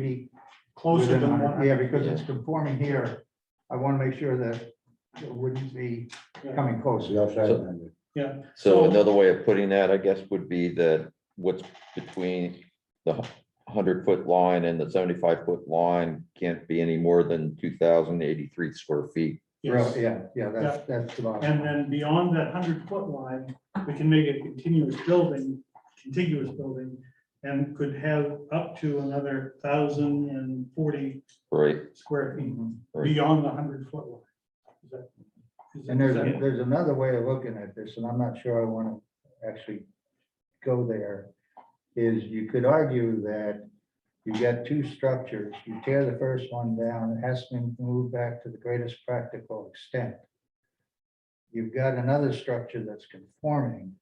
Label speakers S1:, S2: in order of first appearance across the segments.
S1: be closer
S2: Within a
S1: than
S2: hundred.
S1: one, yeah, because it's conforming here. I want to make sure that it wouldn't be coming close.
S2: The outside
S3: So-
S2: vendor.
S3: So
S1: So-
S3: another way of putting that, I guess, would be that what's between the hundred foot line and the seventy-five foot line can't be any more than two thousand eighty-three square feet.
S1: Real-
S4: Yes.
S1: Yeah, yeah, that's, that's the bottom.
S4: And then beyond that hundred foot line, we can make a continuous building, contiguous building, and could have up to another thousand and forty
S3: Right,
S4: square feet
S1: Mm-hmm.
S3: right.
S4: beyond the hundred foot line. Is that- is that-
S1: And there's, a-
S4: is
S1: there's another way of looking at this, and I'm not sure I want to actually go there, is you could argue that you got two structures, you tear the first one down, it has to be moved back to the greatest practical extent. You've got another structure that's conforming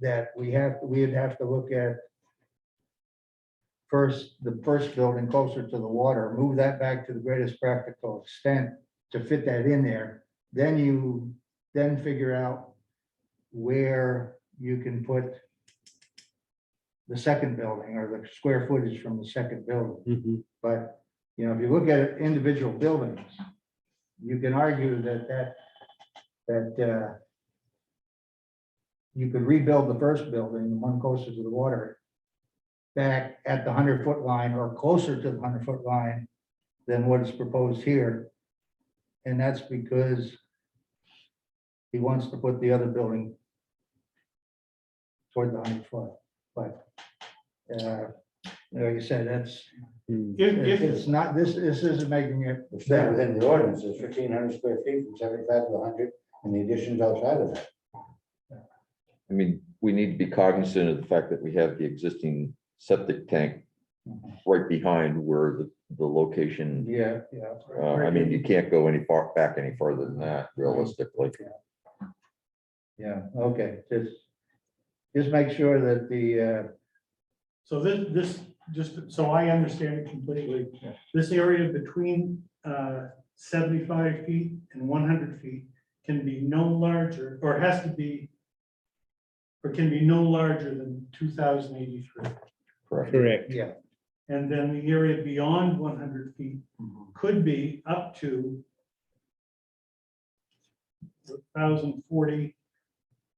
S1: that we have, we'd have to look at first, the first building closer to the water, move that back to the greatest practical extent to fit that in there, then you, then figure out where you can put the second building or the square footage from the second building. But, you know, if you look at individual buildings, you can argue that that, that uh, you could rebuild the first building, the one closest to the water, back at the hundred foot line or closer to the hundred foot line than what is proposed here. And that's because he wants to put the other building toward the hundred foot, but uh, like you said, that's,
S5: Hmm.
S4: that- If, if,
S1: it's not, this, this isn't making it
S2: It's not within the ordinance, it's fifteen hundred square feet from seventy-five to hundred, and the additions outside of that.
S3: I mean, we need to be cognizant of the fact that we have the existing septic tank right behind where the, the location.
S1: Yeah, yeah.
S3: Uh, I mean, you can't go any far, back any farther than that realistically.
S1: Yeah, okay, just, just make sure that the, uh,
S4: so this, this, just, so I understand it completely.
S1: Yeah.
S4: This area between uh, seventy-five feet and one hundred feet can be no larger, or has to be, or can be no larger than two thousand eighty-three.
S3: Correct.
S1: uh,
S5: Correct.
S1: yeah.
S4: And then the area beyond one hundred feet could be up to thousand forty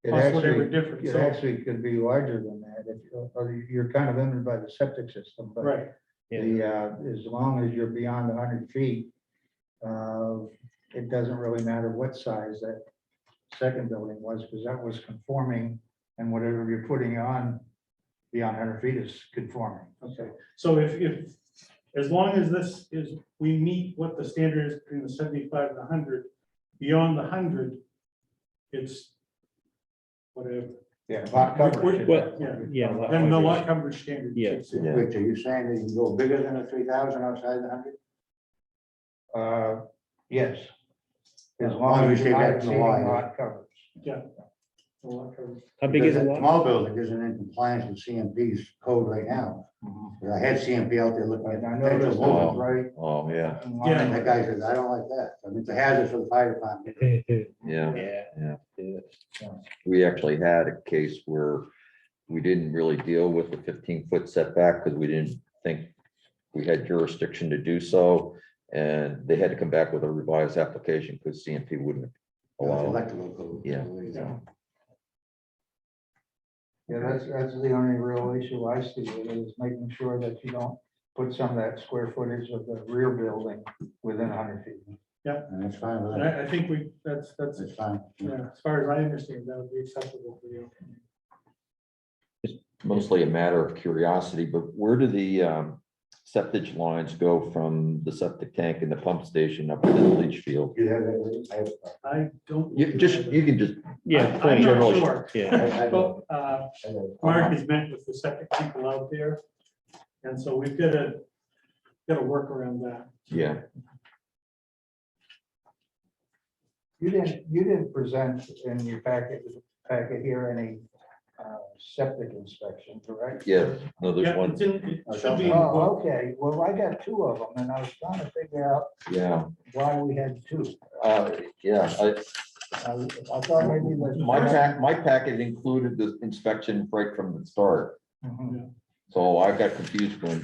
S1: It
S4: plus whatever
S1: actually,
S4: difference.
S1: it
S4: So-
S1: actually could be larger than that, if, you- or you're kind of limited by the septic system, but
S4: Right,
S1: The, uh, as long as you're beyond hundred feet, uh, it doesn't really matter what size that second building was, because that was conforming, and whatever you're putting on beyond hundred feet is conforming.
S4: okay. So if, if, as long as this is, we meet what the standard is between the seventy-five and the hundred, beyond the hundred, it's whatever.
S1: Yeah, lot coverage.
S5: Well,
S4: yeah,
S5: Yeah. lot
S4: Then the
S5: coverage.
S4: lot coverage standard.
S5: Yeah.
S4: kicks in.
S3: Yeah.
S2: Which, are you saying that you can go bigger than a three thousand outside the hundred?
S1: Uh, yes. As
S2: As
S1: long
S2: long
S1: as
S2: as
S1: you're
S2: you're
S1: not
S2: getting the
S1: exceeding
S2: line.
S1: lot coverage.
S4: The lot coverage.
S5: How big is the
S2: Because that
S5: lot?
S2: Small building isn't in compliance with CMP's code right now. I had CMP out there looking at.
S1: And I know there's
S3: Wow.
S1: one right.
S3: Oh, yeah,
S1: in
S2: And
S1: line.
S2: that guy says, I don't like that. I mean, it's a hazard for the fire department.
S3: yeah.
S5: Yeah.
S3: we actually had a case where we didn't really deal with the fifteen foot setback because we didn't think we had jurisdiction to do so. And they had to come back with a revised application because CMP wouldn't allow. it.
S2: Electrical code.
S3: Oh, Yeah.
S4: Yeah.
S1: Yeah, that's, that's the only real issue I see with it, is making sure that you don't put some of that square footage of the rear building within hundred feet.
S2: And that's fine with
S4: And
S2: that.
S4: I, I think we, that's, that's,
S2: That's fine.
S4: yeah, as far as I understand, that would be acceptable for you.
S3: Mostly a matter of curiosity, but where do the um, septic lines go from the septic tank and the pump station up to the leach field?
S2: You have that? I have a problem.
S4: I don't.
S3: You just, you can just,
S5: Yeah.
S4: I'm
S5: point.
S4: not
S3: Generally.
S4: sure.
S5: Yeah.
S2: I- I don't-
S4: But, uh,
S2: I don't-
S4: Mark has met with the septic people out there, and so we've got to, got to work around that.
S3: yeah,
S1: You didn't, you didn't present in your packet, packet here any uh, septic inspection, correct?
S3: yeah, no, there's
S4: Yeah,
S3: one,
S4: it's in- it should be in
S1: Oh,
S4: both.
S1: okay, well, I got two of them, and I was trying to figure out
S3: yeah,
S1: why we had two.
S3: uh, yeah, I,
S1: I I thought maybe that.
S3: My pack, my packet included the inspection right from the start,
S1: Mhm.
S3: So I got confused when